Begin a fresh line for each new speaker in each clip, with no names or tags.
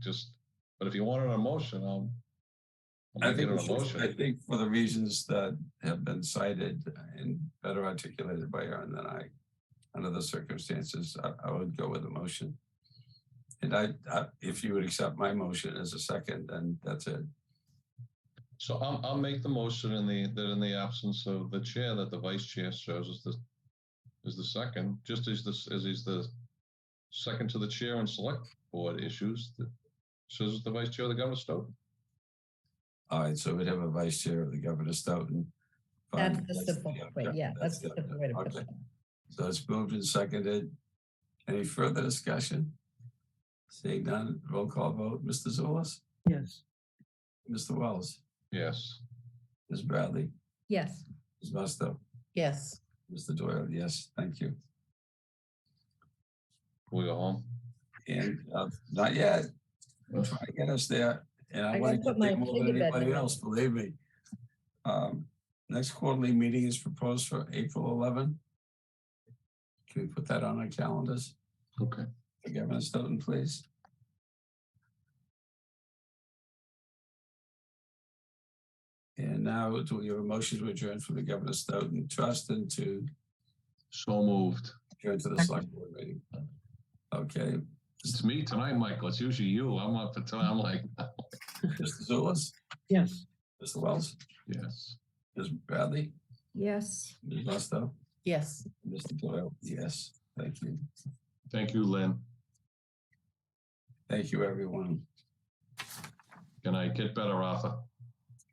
just, but if you want an emotion, I'll. I'll
I
make it
think,
an
we should- I
emotion.
think for the reasons that have been cited and better articulated by Aaron than I, under the circumstances, I, I would go with a motion. And I, I, if you would accept my motion as a second, then that's it.
So I'll, I'll make the motion in the, that in the absence of the chair, that the vice chair serves as the, is the second, just as this, as he's the second to the chair on select board issues, that serves as the vice chair of the Governor Stoughton.
All right, so we'd have a vice chair of the Governor Stoughton.
That's
Fine,
the simple way, yeah, that's the
the-
simple way to put
okay.
it.
So it's moved and seconded. Any further discussion? Seeing none, roll call vote, Mr. Zulus,
Yes.
Mr. Wells,
Yes,
Ms. Bradley,
Yes,
Ms. Musto.
yes.
Mr. Doyle, yes, thank you.
we go home.
And uh, not yet. I'm trying to get us there. And I
I
want to
gotta put
get
my
there more than
kid to bed
anybody
now.
else, believe me. Um, Next quarterly meeting is proposed for April 11. Can we put that on our calendars?
Okay.
For Governor Stoughton, please. And now do we have a motion to adjourn from the Governor Stoughton Trust and to
So moved.
adjourn to the select board meeting? Okay,
It's me tonight, Michael. It's usually you. I'm up for tonight. I'm like,
Mr. Zulus,
Yes.
Mr. Wells,
yes.
Ms. Bradley,
Yes.
Ms. Musto,
Yes.
Mr. Doyle. Yes, thank you.
Thank you, Lynn.
Thank you, everyone.
Can I get better, Rafa?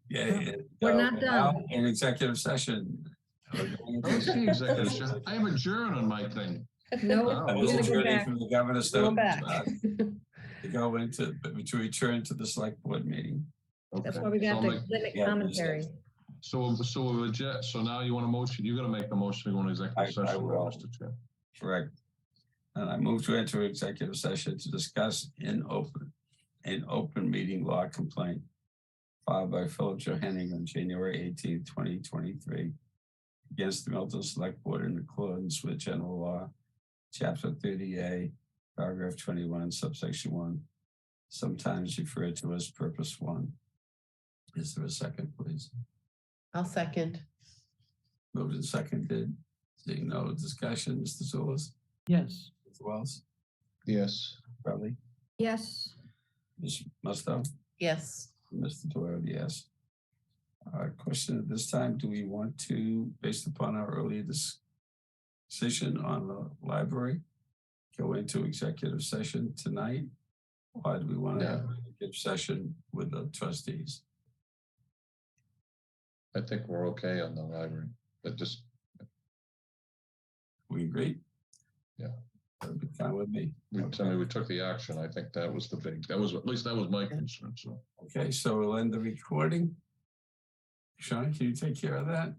Yay.
We're not
We're now
done.
In executive session. We're going
Oh, I was
to-
saying executive session. I am adjourned on my thing.
No,
I
Wow.
was
We're gonna go
adjourning
back.
from the Governor Stoughton.
back.
To go into, to return to the select board meeting.
that's
Okay.
why we
So
got
I'll
the
make-
limit
yeah,
commentary.
So, so we're adjourned. So now you want a motion? You're going to make the motion to go into executive
I- I
session,
will.
Mr. Chair.
Correct. And I move to enter executive session to discuss in open, an open meeting law complaint filed by Philip Johanning on January 18, twenty twenty-three against the Milton Select Board in accordance with general law, chapter thirty A, paragraph twenty-one, subsection one, sometimes referred to as purpose one. Is there a second, please?
I'll second.
Moved and seconded. Seeing no discussion, Mr. Zulus,
Yes.
Mr. Wells,
Yes.
Bradley?
Yes.
Ms. Musto,
Yes.
Mr. Doyle, yes. Uh, question at this time, do we want to, based upon our earlier dis- decision on the library, go into executive session tonight? Or do we want to
No.
have an executive session with the trustees?
I think we're okay on the library, but just,
We agree?
Yeah.
That would be fine with me.
we, I mean, we took the action. I think that was the big, that was, at least that was my concern, so.
Okay, so we'll end the recording. Sean, can you take care of that?